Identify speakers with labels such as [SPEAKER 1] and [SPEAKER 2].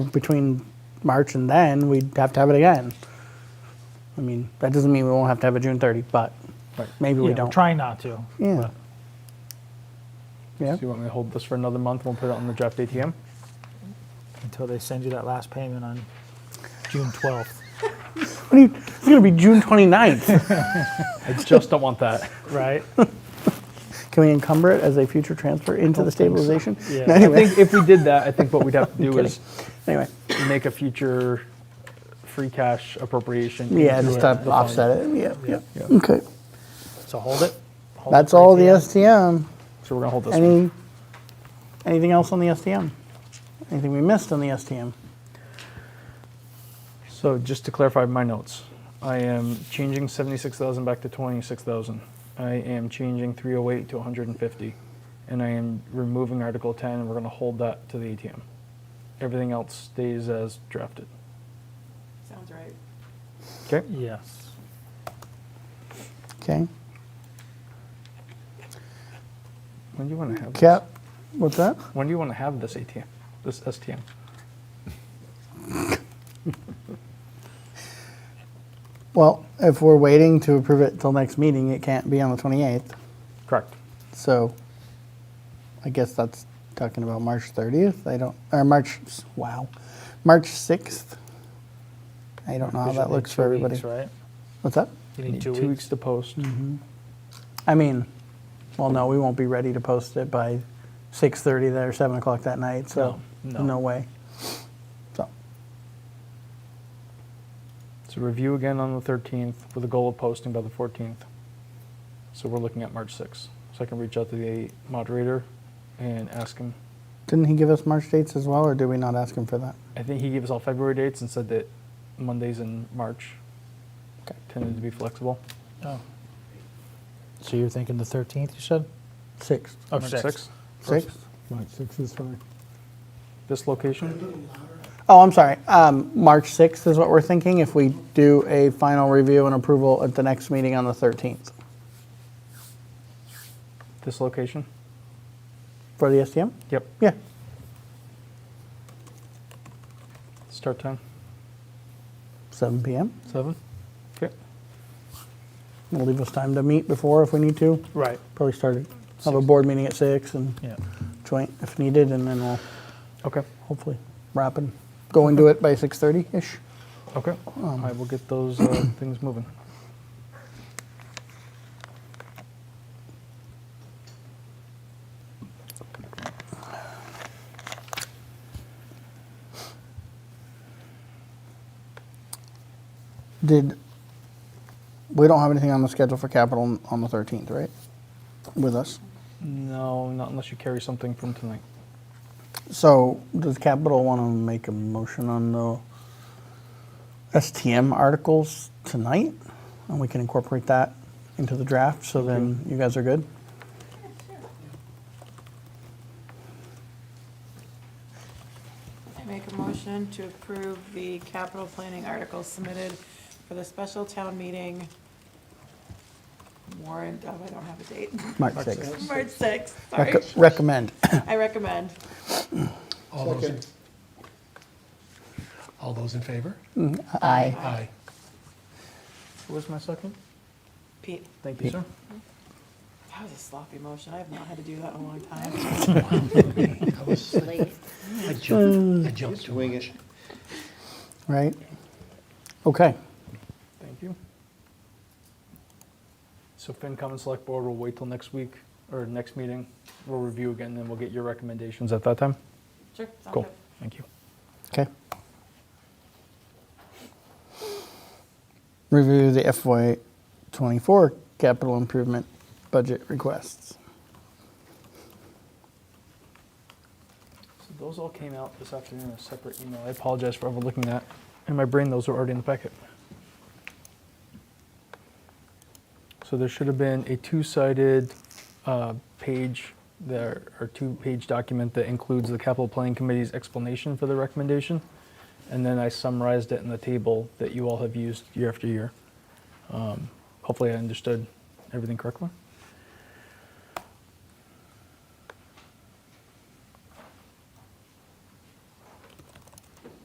[SPEAKER 1] between March and then, we'd have to have it again. I mean, that doesn't mean we won't have to have a June 30, but maybe we
[SPEAKER 2] Yeah,
[SPEAKER 1] don't.
[SPEAKER 2] Try not to.
[SPEAKER 1] Yeah. Yeah,
[SPEAKER 3] So you want me to hold this for another month? We'll put it on the draft ATM.
[SPEAKER 2] until they send you that last payment on June 12th.
[SPEAKER 1] What do you- it's gonna be June 29th.
[SPEAKER 3] I just don't want that.
[SPEAKER 2] Right?
[SPEAKER 1] Can we encumber it as a future transfer into the stabilization?
[SPEAKER 2] Yeah.
[SPEAKER 1] No,
[SPEAKER 2] I
[SPEAKER 3] I
[SPEAKER 1] Anyway,
[SPEAKER 3] think if we did that, I think what we'd have to do is
[SPEAKER 1] anyway,
[SPEAKER 3] make a future free cash appropriation.
[SPEAKER 1] yeah,
[SPEAKER 3] into
[SPEAKER 1] just
[SPEAKER 3] it,
[SPEAKER 1] to
[SPEAKER 3] the fund.
[SPEAKER 1] offset it, yeah, yeah,
[SPEAKER 3] Yeah.
[SPEAKER 1] okay.
[SPEAKER 2] So hold it. Hold
[SPEAKER 1] That's
[SPEAKER 2] it for
[SPEAKER 1] all the
[SPEAKER 2] ATM.
[SPEAKER 1] STM.
[SPEAKER 3] So we're gonna hold this. one.
[SPEAKER 1] Any, anything else on the STM? Anything we missed on the STM?
[SPEAKER 3] So just to clarify my notes, I am changing seventy-six thousand back to twenty-six thousand. I am changing three oh eight to one hundred and fifty, and I am removing Article ten, and we're gonna hold that to the ATM. Everything else stays as drafted.
[SPEAKER 4] Sounds right.
[SPEAKER 3] Okay.
[SPEAKER 2] Yes.
[SPEAKER 1] Okay,
[SPEAKER 3] When do you want to have?
[SPEAKER 1] cap, what's that?
[SPEAKER 3] This? When do you want to have this ATM? This STM.
[SPEAKER 1] Well, if we're waiting to approve it till next meeting, it can't be on the 28th.
[SPEAKER 3] Correct.
[SPEAKER 1] So I guess that's talking about March 30th. I don't, or March, wow, March 6th. I don't know how
[SPEAKER 2] You should
[SPEAKER 1] Ah, that
[SPEAKER 2] need
[SPEAKER 1] looks
[SPEAKER 2] two
[SPEAKER 1] for everybody.
[SPEAKER 2] weeks, right? Mm-hmm.
[SPEAKER 1] What's that?
[SPEAKER 2] You
[SPEAKER 3] Need two weeks to post.
[SPEAKER 1] I mean, well, no, we won't be ready to post it by 6:30 there, 7 o'clock that night, so
[SPEAKER 2] No, no.
[SPEAKER 1] no way. So,
[SPEAKER 3] So review again on the thirteenth with a goal of posting by the fourteenth. So we're looking at March sixth. So I can reach out to the moderator and ask him
[SPEAKER 1] didn't he give us March dates as well, or did we not ask him for that?
[SPEAKER 3] I think he gave us all February dates and said that Mondays in March
[SPEAKER 1] Okay.
[SPEAKER 3] tended to be flexible.
[SPEAKER 2] Oh. So you're thinking the 13th, you said?
[SPEAKER 1] 6th.
[SPEAKER 2] Oh,
[SPEAKER 3] March
[SPEAKER 2] sixth.
[SPEAKER 3] 6th.
[SPEAKER 1] Sixth?
[SPEAKER 5] March 6 is fine.
[SPEAKER 3] This location,
[SPEAKER 1] Oh, I'm sorry. Um, March 6th is what we're thinking if we do a final review and approval at the next meeting on the 13th
[SPEAKER 3] this location.
[SPEAKER 1] for the STM?
[SPEAKER 3] Yep.
[SPEAKER 1] Yeah.
[SPEAKER 3] Start time
[SPEAKER 1] 7 p.m.
[SPEAKER 3] seven. Okay.
[SPEAKER 1] It'll leave us time to meet before if we need to.
[SPEAKER 2] Right.
[SPEAKER 1] Probably start it. Have a board meeting at 6 and
[SPEAKER 2] Yeah.
[SPEAKER 1] joint if needed, and then we'll
[SPEAKER 3] Okay.
[SPEAKER 1] hopefully wrap and go into it by 6.30ish.
[SPEAKER 3] Okay. I will get those uh, things moving.
[SPEAKER 1] Did, we don't have anything on the schedule for capital on- on the 13th, right? With us?
[SPEAKER 3] No, not unless you carry something from tonight.
[SPEAKER 1] So, does Capital want to make a motion on the STM articles tonight? And we can incorporate that into the draft, so then you guys are good?
[SPEAKER 4] I make a motion to approve the capital planning articles submitted for the special town meeting warrant, oh, I don't have a date,
[SPEAKER 1] March 6th.
[SPEAKER 4] March sixth, sorry.
[SPEAKER 1] Rec- Recommend.
[SPEAKER 4] I recommend.
[SPEAKER 6] All those, in- all those in favor?
[SPEAKER 1] Aye.
[SPEAKER 6] Aye.
[SPEAKER 3] Who was my second?
[SPEAKER 4] Pete,
[SPEAKER 3] Thank you, sir.
[SPEAKER 4] that was a sloppy motion, I have not had to do that in a long time.
[SPEAKER 6] I was- I jumped, I jumped too much.
[SPEAKER 1] Right? Okay.
[SPEAKER 3] Thank you. So FinCom and Select Board will wait till next week or next meeting. We'll review again, then we'll get your recommendations at that time.
[SPEAKER 4] Sure, sounds
[SPEAKER 3] Cool.
[SPEAKER 4] good.
[SPEAKER 3] Thank you.
[SPEAKER 1] Okay. Review the FY '24 capital improvement budget requests.
[SPEAKER 3] So those all came out this afternoon in a separate email. I apologize for overlooking that. In my brain, those were already in the packet. So there should have been a two-sided uh, page, there, or two-page document that includes the capital planning committee's explanation for the recommendation. And then I summarized it in the table that you all have used year after year. Um, Hopefully I understood everything correctly.